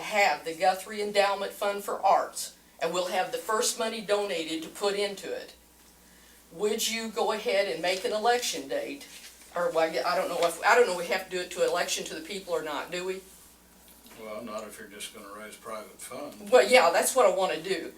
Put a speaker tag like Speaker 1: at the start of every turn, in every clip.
Speaker 1: have the Guthrie Endowment Fund for Arts, and we'll have the first money donated to put into it, would you go ahead and make an election date? Or, well, I- I don't know if, I don't know if we have to do it to election to the people or not, do we?
Speaker 2: Well, not if you're just gonna raise private funds.
Speaker 1: Well, yeah, that's what I want to do.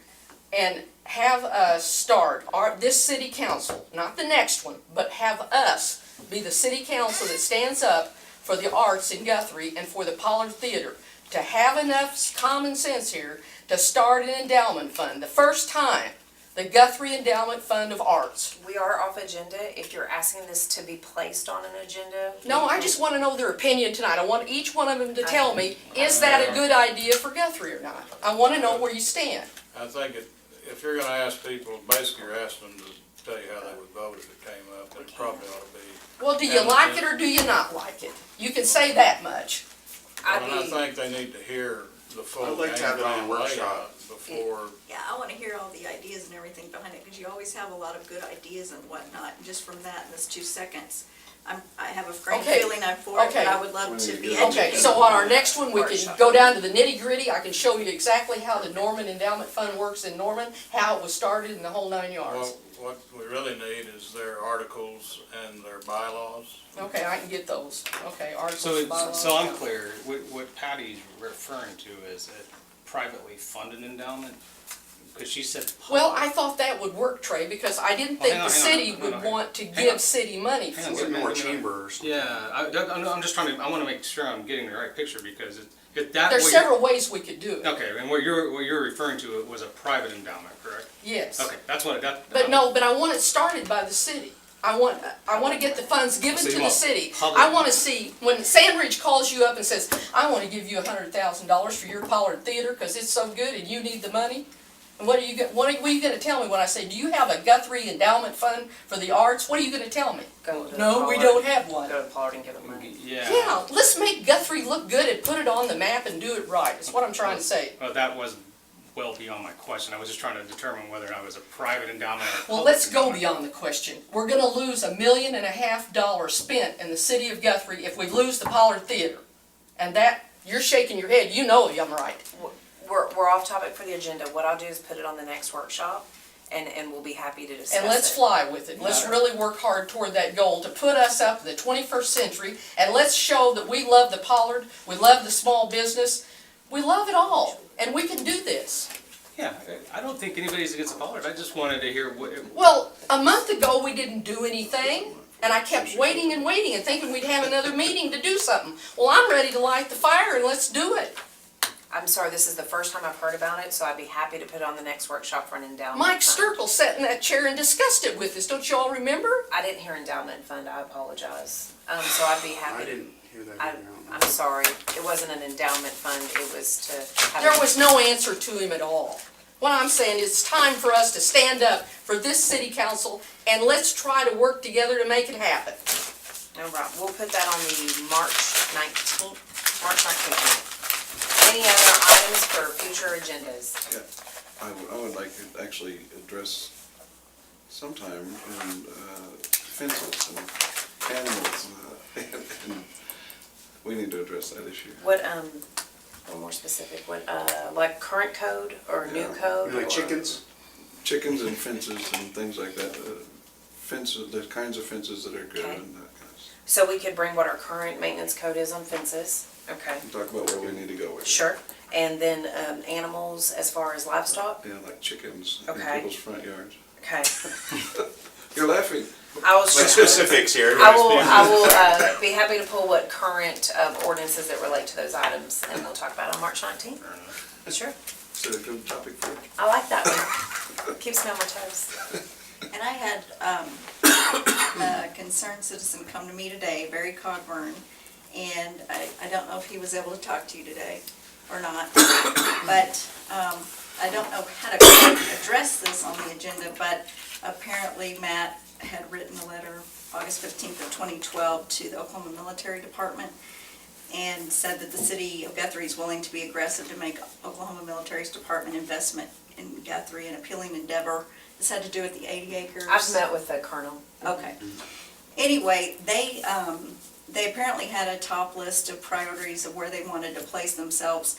Speaker 1: And have us start, our, this city council, not the next one, but have us be the city council that stands up for the arts in Guthrie and for the Pollard Theater. To have enough common sense here to start an endowment fund, the first time, the Guthrie Endowment Fund of Arts.
Speaker 3: We are off agenda. If you're asking this to be placed on an agenda.
Speaker 1: No, I just want to know their opinion tonight. I want each one of them to tell me, is that a good idea for Guthrie or not? I want to know where you stand.
Speaker 2: I think if, if you're gonna ask people, basically you're asking them to tell you how they would vote if it came up, it probably ought to be.
Speaker 1: Well, do you
Speaker 2: And-
Speaker 1: like it or do you not like it? You can say that much.
Speaker 3: I'd
Speaker 2: And I
Speaker 3: be-
Speaker 2: think they need to hear the full.
Speaker 4: I'd like to have it on a
Speaker 2: game plan
Speaker 4: workshop.
Speaker 2: layout Before,
Speaker 5: Yeah, I wanna hear all the ideas and everything behind it, because you always have a lot of good ideas and whatnot, and just from that, in this two seconds, I'm, I have a great
Speaker 1: Okay,
Speaker 5: feeling I'm for it,
Speaker 1: okay.
Speaker 5: but I would love to be educated.
Speaker 1: Okay, so on our next one, we can
Speaker 5: Workshop.
Speaker 1: go down to the nitty gritty. I can show you exactly how the Norman Endowment Fund works in Norman, how it was started and the whole nine yards.
Speaker 2: what, what we really need is their articles and their bylaws.
Speaker 1: Okay, I can get those. Okay,
Speaker 6: So,
Speaker 1: articles,
Speaker 6: it's-
Speaker 1: bylaws.
Speaker 6: so I'm clear, what, what Patty's referring to is a privately funded endowment? Because she said.
Speaker 1: Well, I thought that would work, Trey, because I didn't
Speaker 6: Well,
Speaker 1: think
Speaker 6: Oh, hang
Speaker 1: the
Speaker 6: on, hang on,
Speaker 1: city
Speaker 6: hang on,
Speaker 1: would
Speaker 6: hang on.
Speaker 1: want to
Speaker 6: Hang
Speaker 1: give
Speaker 6: on.
Speaker 1: city money
Speaker 6: Hang
Speaker 1: for
Speaker 6: on a
Speaker 4: Get
Speaker 1: it.
Speaker 6: second.
Speaker 4: more chambers.
Speaker 6: Yeah, I, that- I'm, I'm just trying to, I wanna make sure I'm getting the right picture because it, it that.
Speaker 1: There's
Speaker 6: what you're-
Speaker 1: several ways we could do it,
Speaker 6: Okay, and what you're, what you're referring to was a private endowment, correct?
Speaker 1: yes.
Speaker 6: Okay, that's what, that.
Speaker 1: But no, but I want it started by the city. I want, I want to get the funds given
Speaker 6: So
Speaker 1: to
Speaker 6: you
Speaker 1: the
Speaker 6: want
Speaker 1: city.
Speaker 6: public-
Speaker 1: I want to see, when Sandridge calls you up and says, I want to give you a hundred thousand dollars for your Pollard Theater because it's so good and you need the money. And what are you, go- what are what are you gonna tell me when I say, do you have a Guthrie endowment fund for the arts? What are you gonna tell me?
Speaker 3: Go to
Speaker 1: No, we
Speaker 3: Pollard.
Speaker 1: don't have one.
Speaker 3: Go to Pollard and give it money.
Speaker 6: Yeah.
Speaker 1: Yeah, let's make Guthrie look good and put it on the map and do it right. That's what I'm trying to say.
Speaker 6: Well, Oh, that was well beyond my question. I was just trying to determine whether I was a private endowment or a
Speaker 1: Well,
Speaker 6: public
Speaker 1: let's go
Speaker 6: endowment.
Speaker 1: beyond the question. We're gonna lose a million and a half dollars spent in the city of Guthrie if we lose the Pollard Theater. And that, you're shaking your head, you know I'm right.
Speaker 3: We're, we're off topic for the agenda. What I'll do is put it on the next workshop and, and we'll be happy to discuss it.
Speaker 1: And let's fly with it. Let's really work hard toward that goal to put us up in the twenty-first century. And let's show that we love the Pollard, we love the small business, we love it all, and we can do this.
Speaker 6: Yeah, I I don't think anybody's against Pollard. I just wanted to hear what,
Speaker 1: Well, a month ago, we didn't do anything, and I kept waiting and waiting and thinking we'd have another meeting to do something. Well, I'm ready to light the fire and let's do it.
Speaker 3: I'm sorry, this is the first time I've heard about it, so I'd be happy to put it on the next workshop for an endowment.
Speaker 1: Mike
Speaker 3: fund.
Speaker 1: Sturkle sat in that chair and discussed it with us, don't you all remember?
Speaker 3: I didn't hear endowment fund. I apologize. Um, so I'd be happy.
Speaker 4: I didn't hear that.
Speaker 3: I,
Speaker 4: either, I
Speaker 3: I'm
Speaker 4: don't know.
Speaker 3: sorry. It wasn't an endowment fund. It was to have.
Speaker 1: There was no answer to him at all. What I'm saying is, it's time for us to stand up for this city council, and let's try to work together to make it happen.
Speaker 3: No problem. We'll put that on the March nineteenth, March nineteenth. Any other items for future agendas?
Speaker 7: Yeah, I would, I would like to actually address sometime in uh, fences and animals. uh, and- and We need to address that issue.
Speaker 3: What, um, one more specific, what, uh, like current code or new
Speaker 7: Yeah.
Speaker 3: code?
Speaker 4: You
Speaker 3: or-
Speaker 4: Like chickens?
Speaker 7: Chickens and fences and things like that, uh, fences, the kinds of fences that are good
Speaker 3: Okay.
Speaker 7: and that kind of stuff.
Speaker 3: So we could bring what our current maintenance code is on fences, okay,
Speaker 7: And Talk about where we need to go with it.
Speaker 3: sure. And then, um, animals as far as livestock,
Speaker 7: Yeah, like chickens in
Speaker 3: Okay.
Speaker 7: people's front yards.
Speaker 3: okay.
Speaker 7: You're laughing.
Speaker 3: I was
Speaker 4: Like
Speaker 3: just.
Speaker 4: specifics here.
Speaker 3: I will, I will, uh, be happy to pull what current, uh, ordinances that relate to those items and we'll talk about it on March nineteenth. Sure.
Speaker 7: Is it a good topic for you?
Speaker 3: I like that one. Keeps me on my toes.
Speaker 5: And I had um, a concerned citizen come to me today, Barry Cogburn, and I I don't know if he was able to talk to you today or not, but um, I don't know how to address this on the agenda, but apparently Matt had written a letter August 15th of 2012 to the Oklahoma Military Department and said that the city of Guthrie is willing to be aggressive to make Oklahoma Military's Department investment in Guthrie an appealing endeavor. This had to do with the 80 acres.
Speaker 3: I've met with the colonel.
Speaker 5: Okay. Anyway, they, um, they apparently had a top list of priorities of where they wanted to place themselves.